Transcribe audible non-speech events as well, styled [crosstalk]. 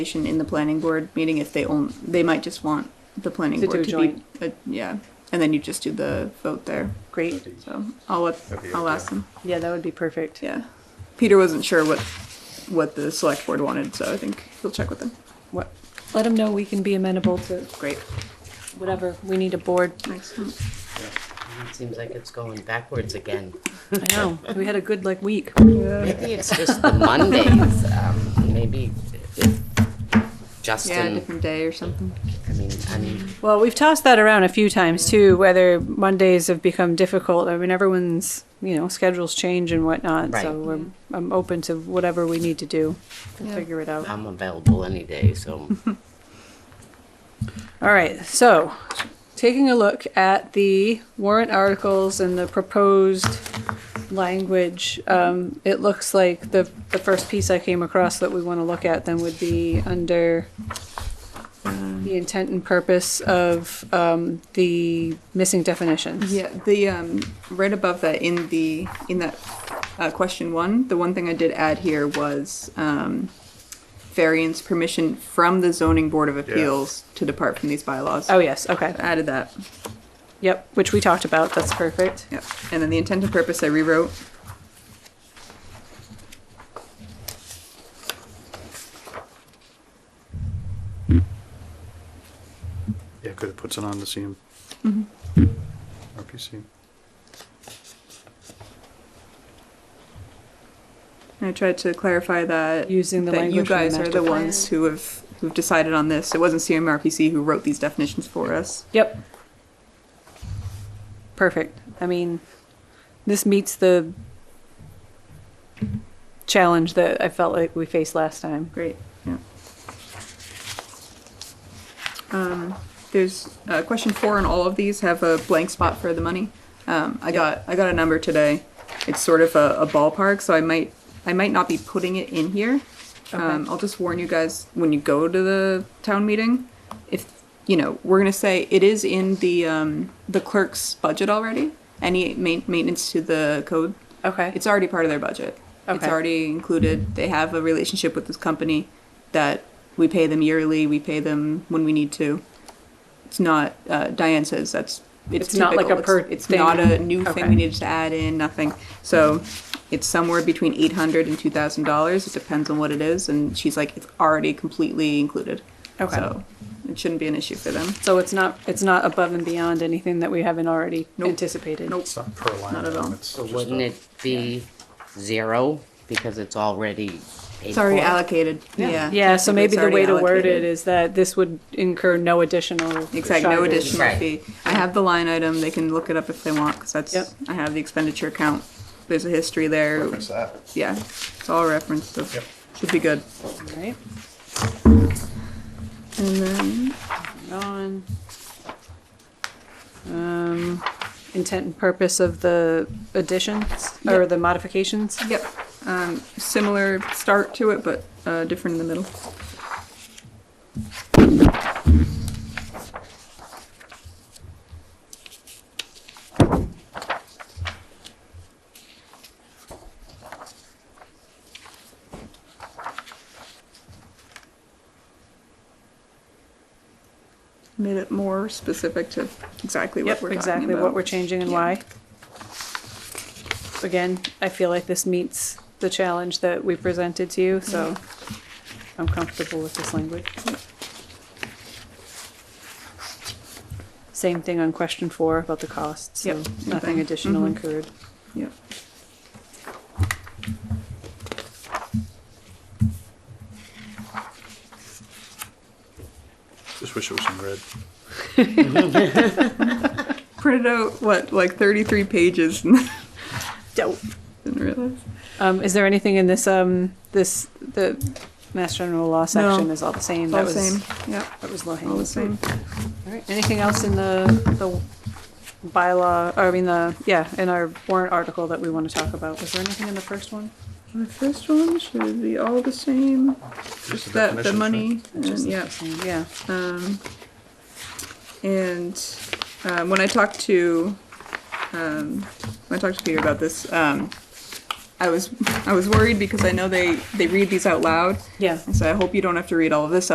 participation in the planning board meeting if they own, they might just want the planning To board do to be. joint. uh, Yeah, and then you just do the vote there. Great. So I'll, up- That'd be I'll okay. ask them, Yeah, that would be perfect. yeah. Peter wasn't sure what, what the select board wanted, so I think he'll check with them. What? Let them know we can be amenable to Great. whatever. We need a board. Excellent. It seems like it's going backwards again. I know. [laughs] We had a good like week. Maybe it's just the Mondays. Um, maybe if Yeah, a Justin, different day or something. I mean, I mean, Well, we've tossed that around a few times too, whether Mondays have become difficult. I mean, everyone's, you know, schedules change and whatnot. So Right. we're, I'm open to whatever we need to do. We'll Yeah. figure it out. I'm available any day, so All right, so taking a look at the warrant articles and the proposed language, um, it looks like the, the first piece I came across that we want to look at then would be under um, the intent and purpose of, um, the missing definitions. Yeah, the um, right above that in the in that uh, question one, the one thing I did add here was um, variance permission from the zoning board of appeals to depart from these bylaws. Oh, yes, okay, I added that. yep, which we talked about, that's perfect. Yeah, and then the intent and purpose I rewrote. Yeah, because it puts it on the CM. Mm-hmm. RPC. And I tried to clarify that Using the that you language from the guys are master the plan. ones who have who've decided on this. It wasn't CMRPC who wrote these definitions for us. Yep. Perfect. I mean, this meets the challenge that I felt like we faced last time. Great, yeah. Um, there's, uh, question four and all of these have a blank spot for the money. Um, I got, I got a number today. It's sort of a, a ballpark, so I might, I might not be putting it in here. Um, Okay. I'll just warn you guys, when you go to the town meeting, if, you know, we're gonna say it is in the, um, the clerk's budget already. Any ma- maintenance to the code, Okay. it's already part of their budget. It's Okay. already included. They have a relationship with this company that we pay them yearly. We pay them when we need to. It's not uh, Diane says that's it's, It's not like typical. a per It's, it's thing. not a new thing we Okay. needed to add in. Nothing. So it's somewhere between eight hundred and two thousand dollars. It depends on what it is. And she's like, it's already completely included. Okay. So it shouldn't be an issue for them. So it's not it's not above and beyond anything that we haven't already Nope. anticipated. Nope. It's not per line. Not at item, all. it's so just wouldn't a- it be zero because it's already paid It's already for? allocated. Yeah. Yeah, so Technically, maybe it's the way already to word it allocated. is that this would incur no additional Exactly, no charges. additional Right. fee. I have the line item. They can look it up if they want because that's Yep. I have the expenditure account. There's a history there. Reference that. Yeah, it's all referenced. So Yep. should be good. Right? And then on. Um, intent and purpose of the additions or Yep. the modifications. yep, um, similar start to it, but uh, different in the middle. Made it more specific to exactly what Yep, we're talking about. exactly what we're changing and Yeah. why. Again, I feel like this meets the challenge that we presented to you, so I'm comfortable with this language. Same thing on question four about the costs, so Yep, same nothing thing. additional Mhm. incurred. Yep. Just wish it was in red. printed out what like 33 pages [laughs] and Dope. didn't realize Um, is there anything in this, um, this, the Mass General Law section is all the same? all That the was- same yeah That was low all hanging the fruit. same All right, anything else in the, the bylaw, or I mean the, yeah, in our warrant article that we want to talk about? Was there anything in the first one? my first one should be all the same Just just the that the money definitions, and, yeah Yeah, um, and um, when I talked to um, when I talked to Peter about this, um, I was I was worried because I know they they read these out loud. Yeah. And so I hope you don't have to read all of this